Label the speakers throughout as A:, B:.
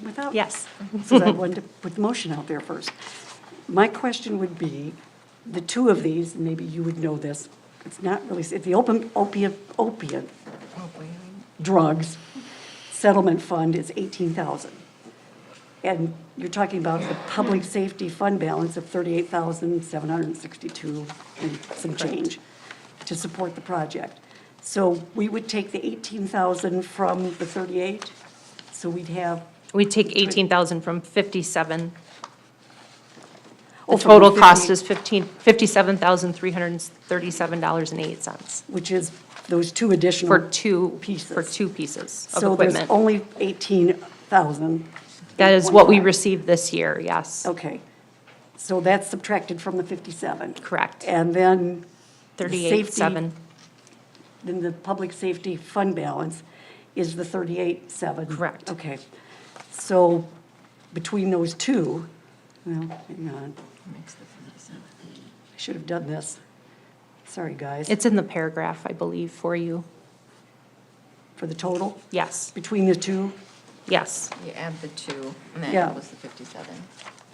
A: without?
B: Yes.
A: So I wanted to put the motion out there first. My question would be, the two of these, maybe you would know this, it's not really, it's the open opiate, opiate drugs settlement fund is eighteen thousand. And you're talking about the public safety fund balance of thirty-eight thousand, seven hundred and sixty-two and some change to support the project. So we would take the eighteen thousand from the thirty-eight, so we'd have
B: We take 18,000 from 57. The
A: Oh, from
B: total cost
A: 58.
B: is 15, $57,337.08
A: which is those two additional.
B: for two,
A: Pieces.
B: for two pieces of
A: So there's
B: equipment.
A: only 18,000.
B: That is what we received this year, yes.
A: Okay. So that's subtracted from the 57.
B: Correct.
A: And then. the safety-
B: 38,700.
A: Then the public safety fund balance is the 38,700.
B: Correct.
A: Okay. So between those two, well, hang on. I should have done this. Sorry, guys.
B: It's in the paragraph, I believe, for you.
A: For the total,
B: Yes,
A: between the two?
B: yes.
C: You add the two, and
A: Yeah.
C: that was the 57.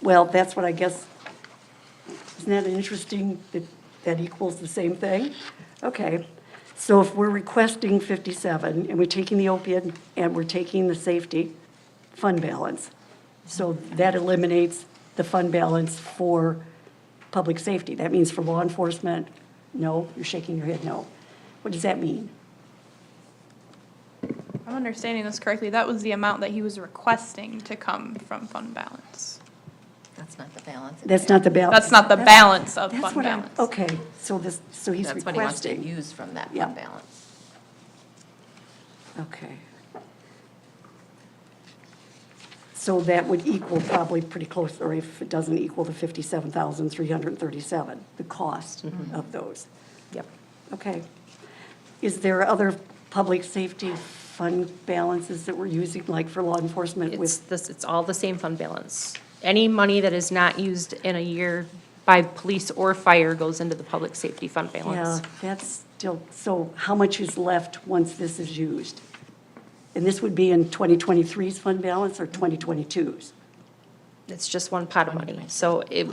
A: Well, that's what I guess, isn't that interesting that that equals the same thing? Okay, so if we're requesting 57, and we're taking the opiate, and we're taking the safety fund balance, so that eliminates the fund balance for public safety. That means for law enforcement, no, you're shaking your head, no. What does that mean?
D: I'm understanding this correctly, that was the amount that he was requesting to come from fund balance.
C: That's not the balance.
A: That's not the balance.
D: That's not the balance of fund balance.
A: Okay, so this, so he's
C: That's
A: requesting.
C: what he wants to use from that
A: Yeah.
C: fund balance.
A: Okay. So that would equal probably pretty close, or if it doesn't equal the 57,337, the cost of those.
B: Yep.
A: Okay. Is there other public safety fund balances that we're using, like for law enforcement
B: It's
A: with?
B: this, it's all the same fund balance. Any money that is not used in a year by police or fire goes into the public safety fund
A: Yeah,
B: balance.
A: that's still, so how much is left once this is used? And this would be in 2023's fund balance or 2022's?
B: It's just one pot of money, so it,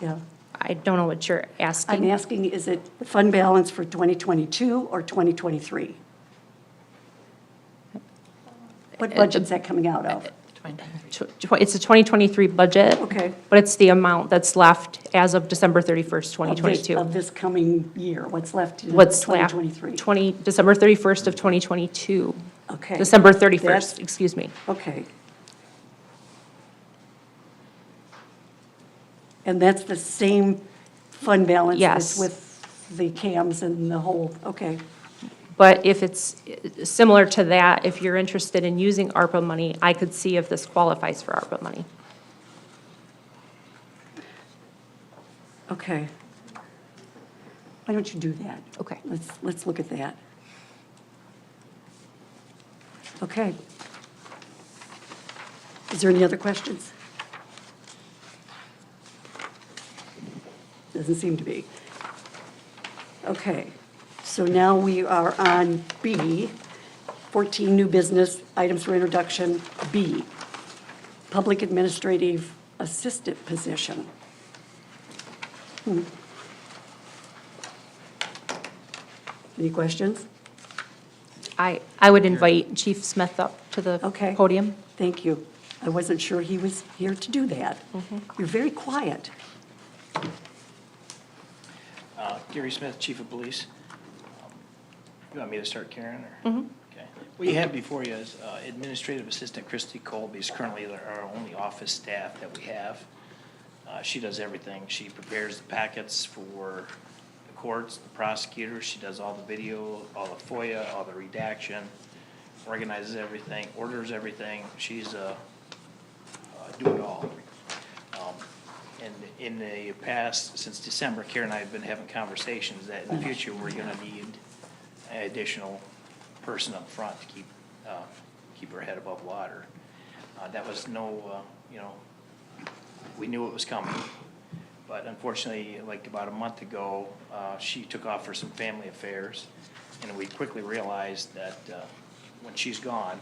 A: Yeah.
B: I don't know what you're
A: I'm
B: asking.
A: asking, is it fund balance for 2022 or 2023?
B: Uh,
A: What budget's that coming out of?
C: 23.
B: Tw- tw- It's a 2023 budget.
A: Okay.
B: But it's the amount that's left as of December 31st,
A: Of this- Of
B: 2022.
A: this coming year, what's left in
B: What's left?
A: 2023?
B: 20, December 31st of 2022.
A: Okay.
B: December
A: That's-
B: 31st, excuse me.
A: Okay. And that's the same fund balance? that's
B: Yes.
A: With the CAMs and the whole, okay,
B: But if it's eh, similar to that, if you're interested in using ARPA money, I could see if this qualifies for ARPA money.
A: okay. Why don't you do that?
B: Okay.
A: Let's, let's look at that. Okay. Is there any other questions? Doesn't seem to be. Okay, so now we are on B, 14 new business items for introduction, B, public administrative assistant position. Any questions?
B: I, I would invite Chief Smith up to the
A: Okay.
B: podium.
A: Thank you. I wasn't sure he was here to do that. You're very quiet.
E: Uh, Gary Smith, Chief of Police. You want me to start, Karen, or? Okay. What you have before you is uh, Administrative Assistant Christy Colby is currently our only office staff that we have. Uh, She does everything. She prepares the packets for the courts, the prosecutors. She does all the video, all the FOIA, all the redaction, organizes everything, orders everything. She's a uh, do it all. Um, And in the past, since December, Karen and I have been having conversations that in the future, we're gonna need an additional person up front to keep, uh, keep her head above water. Uh, That was no, uh, you know, we knew it was coming. But unfortunately, like about a month ago, uh, she took off for some family affairs. And we quickly realized that uh, when she's gone,